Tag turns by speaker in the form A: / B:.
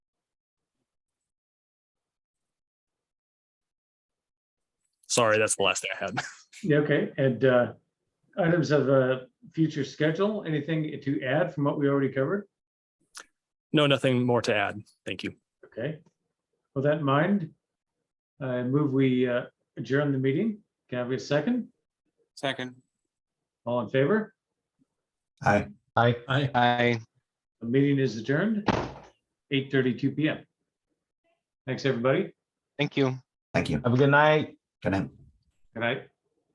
A: Sorry, that's the last thing I had.
B: Yeah, okay, and uh, items of uh, future schedule, anything to add from what we already covered?
A: No, nothing more to add. Thank you.
B: Okay. With that in mind, I move we uh, adjourn the meeting. Can I have a second?
C: Second.
B: All in favor?
D: Aye. Aye. Aye.
C: Aye.
B: The meeting is adjourned, 8:32 PM. Thanks, everybody.
C: Thank you.
D: Thank you. Have a good night. Good night.
B: Good night.